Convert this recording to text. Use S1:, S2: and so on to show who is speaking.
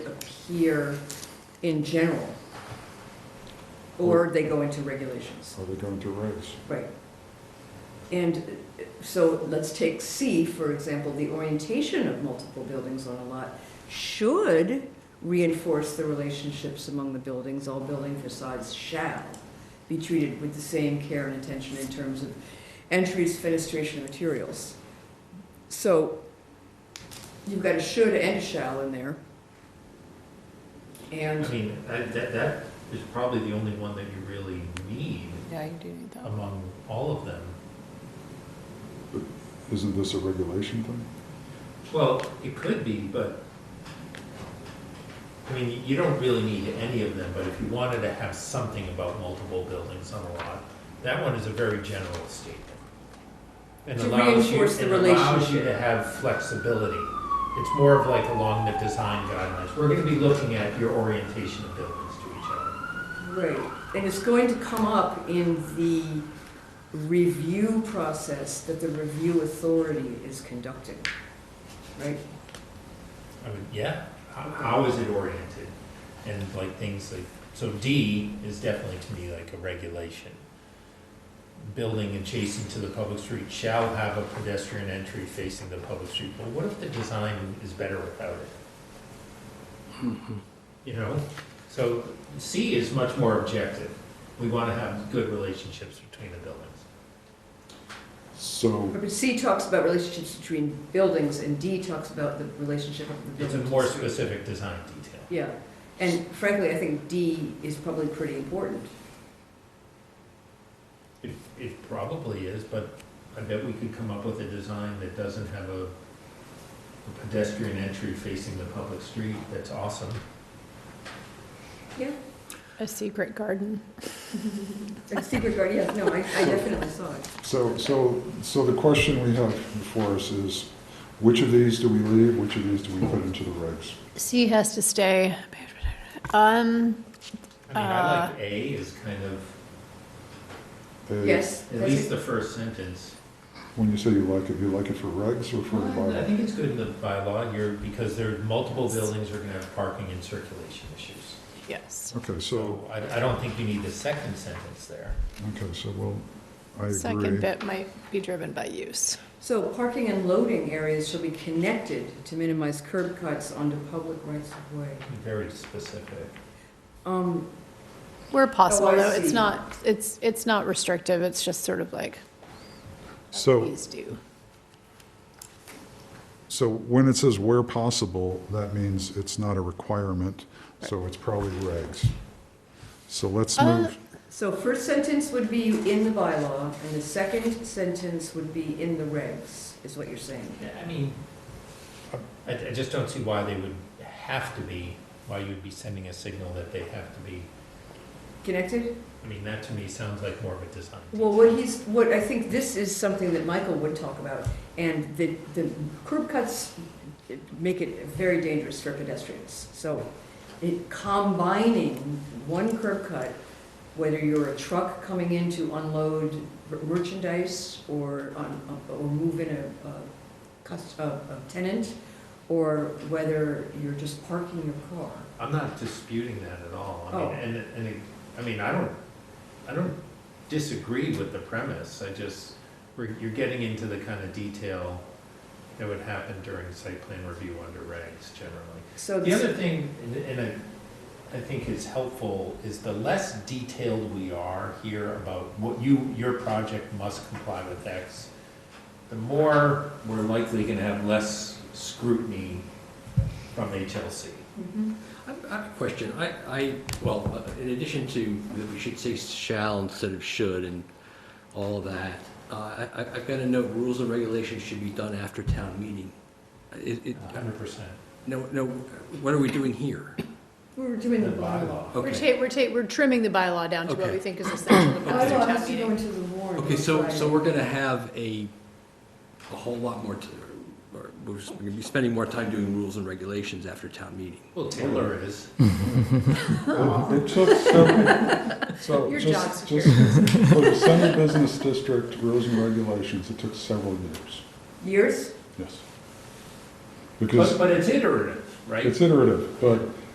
S1: here in general. Or they go into regulations,
S2: Are they going to raise?
S1: right. And uh, so let's take C, for example, the orientation of multiple buildings on a lot should reinforce the relationships among the buildings, all building facades shall be treated with the same care and attention in terms of entries, fenestration, materials. So you've got a should and a shall in there.
S3: I
S1: And
S3: mean, I- that, that is probably the only one that you really need
S4: Yeah, you do need that.
S3: among all of them.
S2: Isn't this a regulation thing?
S3: Well, it could be, but, I mean, you don't really need any of them, but if you wanted to have something about multiple buildings on a lot, that one is a very general statement. And
S1: To
S3: allows you,
S1: reinforce the
S3: and allows you to
S1: relationship.
S3: have flexibility. It's more of like along the design guidelines. We're gonna be looking at your orientation of buildings to each other.
S1: Right, and it's going to come up in the review process that the review authority is conducting, right?
S3: I mean, yeah, how, how is it oriented? And like things like, so D is definitely to me like a regulation. Building adjacent to the public street shall have a pedestrian entry facing the public street. But what if the design is better without it? You know, so C is much more objective. We wanna have good relationships between the buildings.
S2: So,
S1: But C talks about relationships between buildings, and D talks about the relationship of the
S3: It's
S1: building
S3: a
S1: to the
S3: more
S1: street.
S3: specific design detail.
S1: Yeah, and frankly, I think D is probably pretty important.
S3: It, it probably is, but I bet we could come up with a design that doesn't have a a pedestrian entry facing the public street. That's awesome.
S1: Yeah.
S4: A secret garden.
S1: And secret guard, yeah, no, I, I definitely saw it.
S2: so, so, so the question we have before us is, which of these do we leave, which of these do we put into the regs?
S4: C has to stay. Um,
S3: I mean, I like Uh, A is kind of,
S2: A,
S1: Yes,
S3: at
S1: that's
S3: least
S1: it.
S3: the first sentence.
S2: When you say you like it, you like it for regs or for a
S3: I
S2: bylaw?
S3: think it's good in the bylaw here because there, multiple buildings are gonna have parking and circulation issues.
S4: yes.
S2: Okay, so,
S3: I, I don't think you need the second sentence there.
S2: okay, so, well, I
S4: Second
S2: agree.
S4: bit might be driven by use.
S1: So parking and loading areas shall be connected to minimize curb cuts onto public rights of way.
S3: Very specific.
S1: Um,
S4: Where
S1: Oh,
S4: possible,
S1: I
S4: though, it's
S1: see.
S4: not, it's, it's not restrictive, it's just sort of like,
S2: So,
S4: please do.
S2: so when it says where possible, that means it's not a requirement, so it's probably regs. So let's
S4: Uh,
S2: move,
S1: So first sentence would be in the bylaw, and the second sentence would be in the regs, is what you're saying.
S3: Yeah, I mean, I, I just don't see why they would have to be, why you'd be sending a signal that they have to be.
S1: Connected?
S3: I mean, that to me sounds like more of a design.
S1: Well, what he's, what, I think this is something that Michael would talk about, and the, the curb cuts make it very dangerous for pedestrians. So it, combining one curb cut, whether you're a truck coming in to unload merchandise or on, or move in a, a cus- a, a tenant, or whether you're just parking your car.
S3: I'm not disputing that at all. I
S1: Oh.
S3: mean, and, and, it- I mean, I don't, I don't disagree with the premise. I just, we're, you're getting into the kind of detail that would happen during site plan review under regs generally.
S1: So
S3: The
S1: this,
S3: other thing, and- and I, I think is helpful, is the less detailed we are here about what you, your project must comply with X, the more we're likely gonna have less scrutiny from HLC.
S5: I I have a question. I, I, well, uh, in addition to that we should say shall instead of should and all of that, uh, I, I- I've got to note, rules and regulations should be done after town meeting. It, it,
S3: Hundred percent.
S5: no, no, what are we doing here?
S1: we were doing the
S3: The
S1: bylaw.
S3: bylaw.
S4: We're
S5: Okay.
S4: ta, we're ta, we're trimming the bylaw down to what
S5: Okay.
S4: we think is essential. to
S1: The
S4: pass through
S1: Bylaw
S4: town
S1: has to go
S4: meeting.
S1: into the warrant.
S5: Okay, so,
S1: right.
S5: so we're going to have a, a whole lot more, to- or we're going to be spending more time doing rules and regulations after town meeting.
S3: Well, Taylor is.
S2: It it took several, so
S4: Your
S2: just,
S4: job's
S2: just for the Center Business District rules and regulations, it took several years,
S1: Years?
S2: yes.
S3: But,
S2: Because
S3: but it's iterative, right?
S2: it's iterative, but